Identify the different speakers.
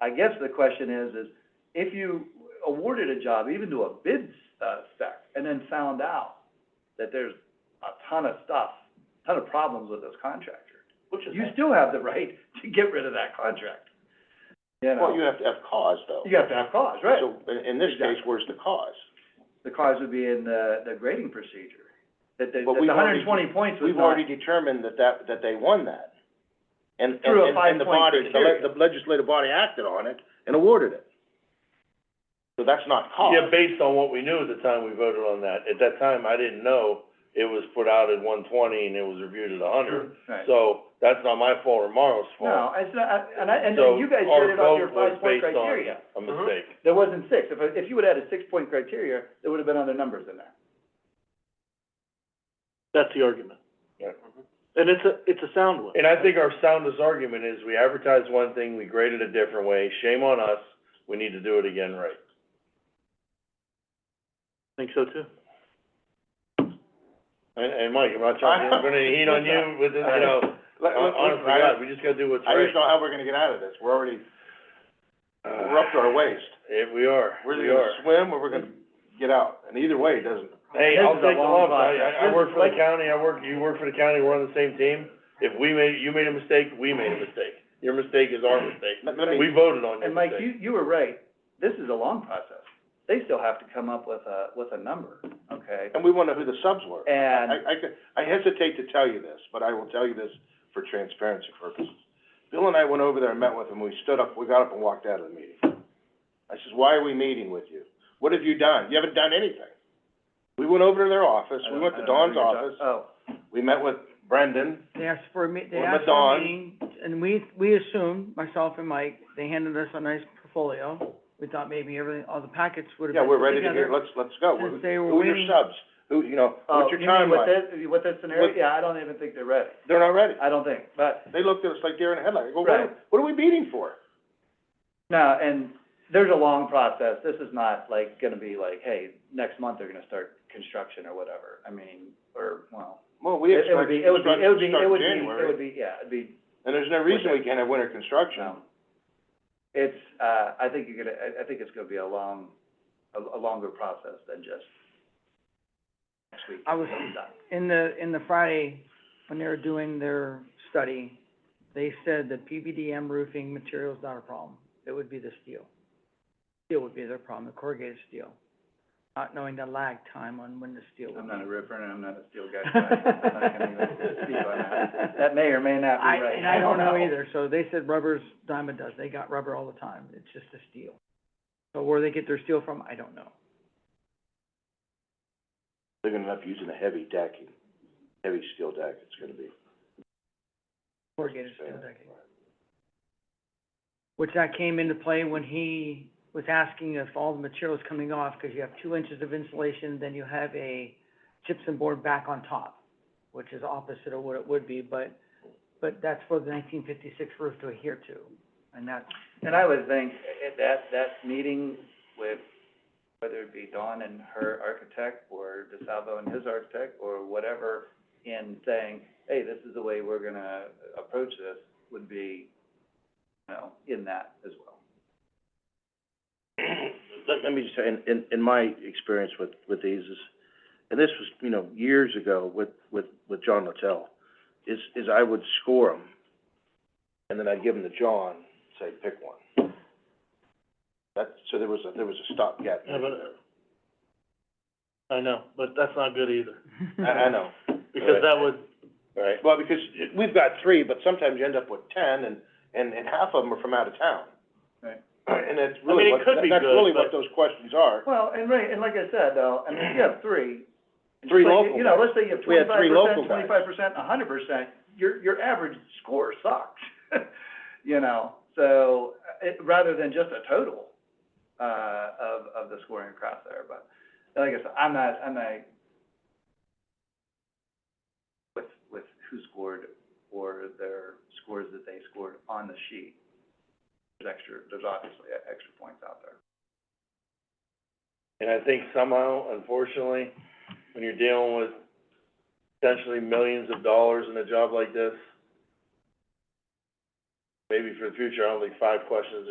Speaker 1: I guess the question is, is if you awarded a job even to a bid, uh, spec, and then found out that there's a ton of stuff, ton of problems with this contractor,
Speaker 2: Which is,
Speaker 1: you still have the right to get rid of that contract, you know?
Speaker 2: well, you have to have cause, though.
Speaker 1: You have to have cause, right?
Speaker 2: So, in, in this case,
Speaker 1: Exactly.
Speaker 2: where's the cause?
Speaker 1: The cause would be in the, the grading procedure, that the,
Speaker 2: But
Speaker 1: that
Speaker 2: we've
Speaker 1: the hundred and
Speaker 2: already-
Speaker 1: twenty points was
Speaker 2: We've
Speaker 1: not,
Speaker 2: already determined that that, that they won that. And, and,
Speaker 1: Through a
Speaker 2: and and the
Speaker 1: five-point
Speaker 2: body, the
Speaker 1: criteria.
Speaker 2: le- the legislative body acted on it and awarded it. So that's not cause.
Speaker 3: Yeah, based on what we knew at the time we voted on that. At that time, I didn't know it was put out at one twenty and it was reviewed at a hundred.
Speaker 1: right.
Speaker 3: So that's not my fault or Marlo's fault.
Speaker 1: No, it's not, I- and I, and you guys did it on your five-point
Speaker 3: So our vote was
Speaker 1: criteria.
Speaker 2: Uh-huh.
Speaker 3: based on a mistake.
Speaker 1: There wasn't six. If, if you would've had a six-point criteria, there would've been other numbers in there.
Speaker 4: That's the argument.
Speaker 3: Yeah.
Speaker 2: Uh-huh.
Speaker 4: And it's a, it's a sound one.
Speaker 3: And I think our soundest argument is we advertised one thing, we graded a different way, shame on us, we need to do it again right.
Speaker 4: I think so too.
Speaker 3: And, and Mike, I'm not trying to, I'm gonna heat on you with, this, you know,
Speaker 2: Let- let-
Speaker 3: honest to
Speaker 2: I-
Speaker 3: God, we just gotta do what's
Speaker 2: I just
Speaker 3: right.
Speaker 2: don't know how we're gonna get out of this. We're already, we're up to our waist.
Speaker 3: Yeah, we are,
Speaker 2: We're
Speaker 3: we
Speaker 2: either
Speaker 3: are.
Speaker 2: gonna swim or we're gonna get out. And either way, it doesn't,
Speaker 1: This
Speaker 3: Hey, I'll
Speaker 1: is a
Speaker 3: take the
Speaker 1: long
Speaker 3: lump, I,
Speaker 1: process.
Speaker 3: I, I
Speaker 1: This
Speaker 3: work
Speaker 1: is
Speaker 3: for the
Speaker 1: like-
Speaker 3: county, I work, you work for the county, we're on the same team. If we made, you made a mistake, we made a mistake. Your mistake is our mistake.
Speaker 2: let, let me.
Speaker 3: We voted on your
Speaker 1: And Mike,
Speaker 3: mistake.
Speaker 1: you, you were right. This is a long process. They still have to come up with a, with a number, okay?
Speaker 2: And we wanna know who the subs were.
Speaker 1: And,
Speaker 2: I, I could- I hesitate to tell you this, but I will tell you this for transparency purposes. Bill and I went over there and met with him, we stood up, we got up and walked out of the meeting. I says, why are we meeting with you? What have you done? You haven't done anything. We went over to their office, we went to Dawn's office,
Speaker 1: oh,
Speaker 2: we met with Brendan,
Speaker 5: They asked for a meet, they
Speaker 2: Or
Speaker 5: asked for
Speaker 2: Madon.
Speaker 5: a meeting, and we, we assumed, myself and Mike, they handed us a nice portfolio. We thought maybe everything, all the packets would have
Speaker 2: yeah,
Speaker 5: been
Speaker 2: we're
Speaker 5: put
Speaker 2: ready to hear,
Speaker 5: together.
Speaker 2: let's, let's go. Who-
Speaker 5: Since they were
Speaker 2: Who are your
Speaker 5: waiting-
Speaker 2: subs? Who, you know,
Speaker 1: oh,
Speaker 2: what's
Speaker 1: you
Speaker 2: your
Speaker 1: mean with
Speaker 2: timeline?
Speaker 1: this, with this scenario?
Speaker 2: With-
Speaker 1: Yeah, I don't even think they're ready.
Speaker 2: They're not ready.
Speaker 1: I don't think, but,
Speaker 2: They looked at us like deer in the headlights, I go, what, are-
Speaker 1: Right.
Speaker 2: what are we meeting for?
Speaker 1: no, and there's a long process. This is not like, gonna be like, hey, next month they're gonna start construction or whatever. I mean, or, well,
Speaker 2: Well, we
Speaker 1: it it would
Speaker 2: expect
Speaker 1: be,
Speaker 2: to
Speaker 1: it would be,
Speaker 2: start,
Speaker 1: it would be,
Speaker 2: start
Speaker 1: it would be,
Speaker 2: January.
Speaker 1: it would be, yeah, it'd be
Speaker 2: And there's no reason we can't have winter construction.
Speaker 1: No. It's, uh, I think you're gonna, I, I think it's gonna be a long, a, a longer process than just next week.
Speaker 5: I was-
Speaker 1: it's done.
Speaker 5: In the, in the Friday, when they were doing their study, they said that PBDM roofing material is not a problem. It would be the steel. Steel would be their problem, the corrugated steel, not knowing the lag time on when the steel would
Speaker 1: I'm
Speaker 5: be.
Speaker 1: not a roofer and I'm not a steel guy, so I'm not gonna even speak on that. That may or may not
Speaker 5: I,
Speaker 1: be right.
Speaker 5: and I don't know either, so they said rubber's dime a dozen, they got rubber all the time, it's just a steel. So where they get their steel from, I don't know.
Speaker 2: They're gonna end up using a heavy decking, heavy steel deck, it's gonna be.
Speaker 5: Corrugated steel decking. Which that came into play when he was asking if all the material's coming off, because you have two inches of insulation, then you have a gypsum board back on top, which is opposite of what it would be, but, but that's for the nineteen fifty-six roof to adhere to, and that's
Speaker 1: And I would think i- that, that meeting with, whether it be Dawn and her architect, or DeSalvo and his architect, or whatever, in saying, hey, this is the way we're gonna approach this, would be, you know, in that as well.
Speaker 2: Let, let me just say, in, in, in my experience with, with these is, and this was, you know, years ago with, with, with John Littell, is, is I would score them, and then I'd give them to John, say, pick one. That, so there was a, there was a stopgap.
Speaker 4: Yeah, but-
Speaker 2: measure
Speaker 4: I know, but that's not good either,
Speaker 2: there. I, I know,
Speaker 4: because that would,
Speaker 3: Right,
Speaker 2: well, because it- we've got three, but sometimes you end up with ten, and, and, and half of them are from out of town.
Speaker 1: Right.
Speaker 2: And that's
Speaker 4: mean,
Speaker 2: really
Speaker 4: it
Speaker 2: what,
Speaker 4: could be
Speaker 2: that's
Speaker 4: good,
Speaker 2: really what
Speaker 4: but-
Speaker 2: those questions are.
Speaker 1: Well, and right, and like I said, though, I mean, if you have three. and
Speaker 2: Three
Speaker 1: just like,
Speaker 2: local
Speaker 1: You know,
Speaker 2: guys.
Speaker 1: let's say you have
Speaker 2: We had
Speaker 1: twenty-five
Speaker 2: three
Speaker 1: percent,
Speaker 2: local
Speaker 1: twenty-five percent, a hundred percent, your, your average score sucks. You know, so, uh, it, rather than just a total, uh, of, of the scoring across there, but, like I said, I'm not, I'm not with, with who scored or their scores that they scored on the sheet. There's extra, there's obviously extra points out there.
Speaker 3: and I think somehow, unfortunately, when you're dealing with potentially millions of dollars in a job like this, maybe for the future, I don't think five questions